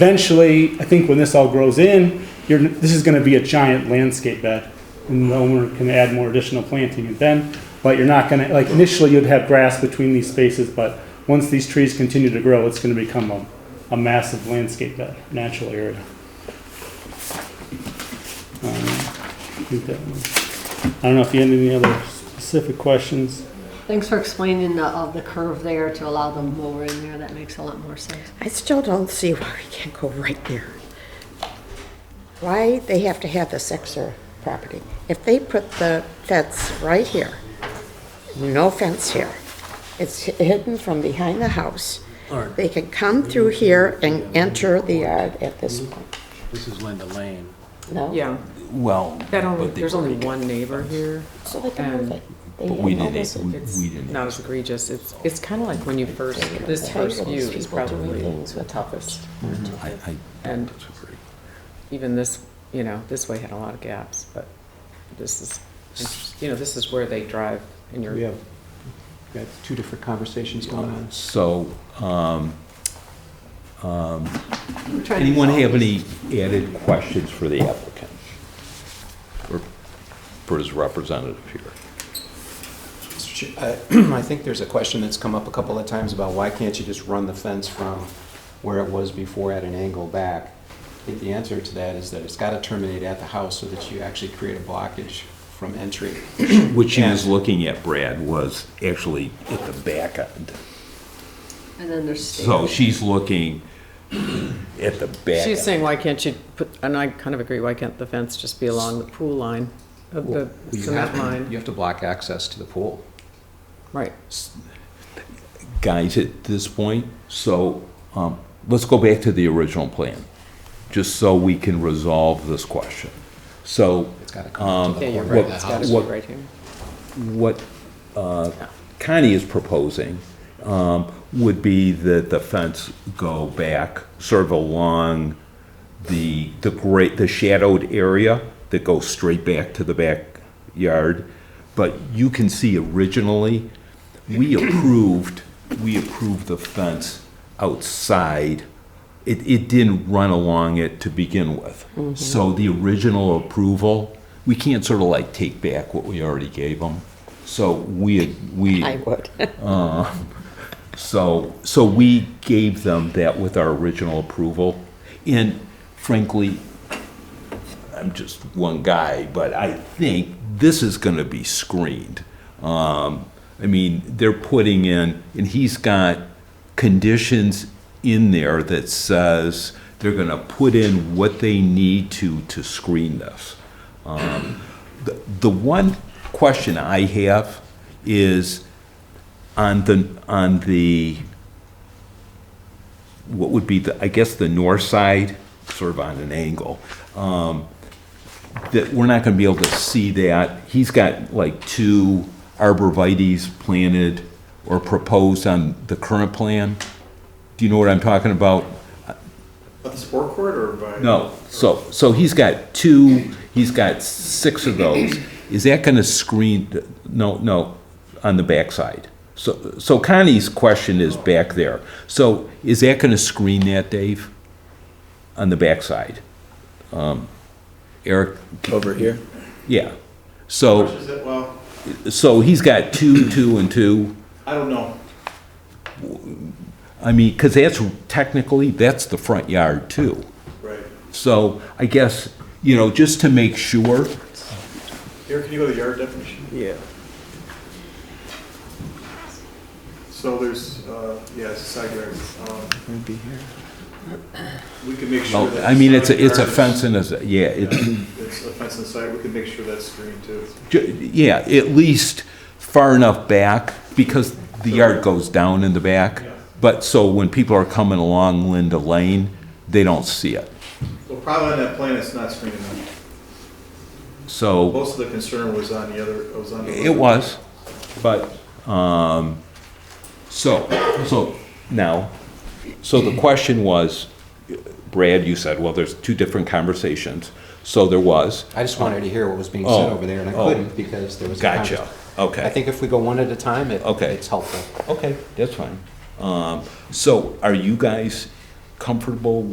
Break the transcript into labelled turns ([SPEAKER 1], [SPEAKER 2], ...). [SPEAKER 1] Eventually, I think when this all grows in, you're, this is gonna be a giant landscape bed. And the owner can add more additional planting and then, but you're not gonna, like initially you'd have grass between these spaces, but once these trees continue to grow, it's gonna become a, a massive landscape bed, natural area. Um, I think that was- I don't know if you had any other specific questions.
[SPEAKER 2] Thanks for explaining the, uh, the curve there to allow the mower in there. That makes a lot more sense.
[SPEAKER 3] I still don't see why we can't go right there. Why they have to have this extra property? If they put the fence right here, no fence here, it's hidden from behind the house. They can come through here and enter the yard at this
[SPEAKER 4] Mm-hmm.
[SPEAKER 3] point,
[SPEAKER 5] This is Linda Lane.
[SPEAKER 3] no?
[SPEAKER 6] Yeah,
[SPEAKER 4] Well,
[SPEAKER 6] that only,
[SPEAKER 4] but they
[SPEAKER 6] there's only
[SPEAKER 4] already-
[SPEAKER 6] one neighbor here.
[SPEAKER 3] So they can move it. They
[SPEAKER 4] But we
[SPEAKER 3] have all
[SPEAKER 4] didn't-
[SPEAKER 3] this-
[SPEAKER 4] we-
[SPEAKER 6] It's
[SPEAKER 4] didn't
[SPEAKER 6] not as egregious. It's, it's kind of like when you first, this
[SPEAKER 3] How do you
[SPEAKER 6] first
[SPEAKER 3] get
[SPEAKER 6] view
[SPEAKER 3] these
[SPEAKER 6] is
[SPEAKER 3] people doing
[SPEAKER 6] probably
[SPEAKER 3] things
[SPEAKER 6] the
[SPEAKER 3] with
[SPEAKER 6] toughest.
[SPEAKER 4] I, I,
[SPEAKER 6] And even this, you know, this way had a lot of gaps, but this is, you know, this is where they drive and
[SPEAKER 5] We
[SPEAKER 6] you're,
[SPEAKER 5] have, we have two different conversations going on.
[SPEAKER 4] so, um, um, anyone have any added questions for the applicant? Or for his representative here?
[SPEAKER 5] Mr. Chair, I I think there's a question that's come up a couple of times about why can't you just run the fence from where it was before at an angle back? I think the answer to that is that it's got to terminate at the house so that you actually create a blockage from entry.
[SPEAKER 4] What she was
[SPEAKER 5] And-
[SPEAKER 4] looking at, Brad, was actually at the back end.
[SPEAKER 2] And then there's stairs.
[SPEAKER 4] So she's looking at the back.
[SPEAKER 6] she's saying, why can't you put, and I kind of agree, why can't the fence just be along the pool line of the
[SPEAKER 5] You
[SPEAKER 6] cement
[SPEAKER 5] have to- You
[SPEAKER 6] line?
[SPEAKER 5] have to block access to the pool.
[SPEAKER 6] Right.
[SPEAKER 4] guys at this point, so um, let's go back to the original plan, just so we can resolve this question. So
[SPEAKER 5] It's got to come to
[SPEAKER 6] Yeah,
[SPEAKER 5] the
[SPEAKER 6] you're
[SPEAKER 5] corner
[SPEAKER 6] right.
[SPEAKER 5] of the
[SPEAKER 6] It's gotta
[SPEAKER 5] house.
[SPEAKER 6] be
[SPEAKER 4] What-
[SPEAKER 6] right here.
[SPEAKER 4] what uh, Connie is proposing um, would be that the fence go back sort of along the, the great, the shadowed area that goes straight back to the backyard. But you can see originally, we approved, we approved the fence outside. It, it didn't run along it to begin with. So the original approval, we can't sort of like take back what we already gave them. So we, had- we.
[SPEAKER 3] I would.
[SPEAKER 4] So, so we gave them that with our original approval. And frankly, I'm just one guy, but I think this is gonna be screened. Um, I mean, they're putting in, and he's got conditions in there that says they're gonna put in what they need to, to screen this. Um, The, the one question I have is, on the, on the, what would be the, I guess, the north side, sort of on an angle, um, that we're not gonna be able to see that. He's got like two arborvitae's planted or proposed on the current plan. Do you know what I'm talking about?
[SPEAKER 7] At the sport court or by?
[SPEAKER 4] No, so, so he's got two, he's got six of those. Is that gonna screen, no, no, on the backside? So, so Connie's question is back there. So is that gonna screen that, Dave? On the backside? Um, Eric?
[SPEAKER 5] Over here?
[SPEAKER 4] Yeah. So,
[SPEAKER 7] Is it, well,
[SPEAKER 4] so he's got two, two, and two.
[SPEAKER 7] I don't know.
[SPEAKER 4] I mean, cause that's technically, that's the front yard too.
[SPEAKER 7] Right.
[SPEAKER 4] So I guess, you know, just to make sure,
[SPEAKER 7] Here, can you go to the yard definition?
[SPEAKER 5] Yeah.
[SPEAKER 7] So there's, uh, yeah, it's a side yard. Um,
[SPEAKER 5] It'd be here.
[SPEAKER 7] We can make sure
[SPEAKER 4] Oh,
[SPEAKER 7] that.
[SPEAKER 4] I mean, it's, a it's a
[SPEAKER 7] side yard is-
[SPEAKER 4] fence and it's, a- yeah, it's,
[SPEAKER 7] It's a fence inside, we can make sure that's screened too.
[SPEAKER 4] ju- yeah, at least far enough back, because the yard goes down in the back. But, so when people are coming along Linda Lane, they don't see it.
[SPEAKER 7] Well, probably on that plan, it's not screened enough.
[SPEAKER 4] So,
[SPEAKER 7] Most of the concern was on the other, was on the.
[SPEAKER 4] it was, but, um, so, so, now, so the question was, Brad, you said, well, there's two different conversations. So there was,
[SPEAKER 5] I just wanted to hear what was being said
[SPEAKER 4] Oh,
[SPEAKER 5] over there, and I
[SPEAKER 4] oh.
[SPEAKER 5] couldn't because there was a
[SPEAKER 4] Gotcha.
[SPEAKER 5] convers-
[SPEAKER 4] Okay.
[SPEAKER 5] I think if we go one at a time, it,
[SPEAKER 4] Okay.
[SPEAKER 5] it's helpful.
[SPEAKER 4] Okay, that's fine. Um, So are you guys comfortable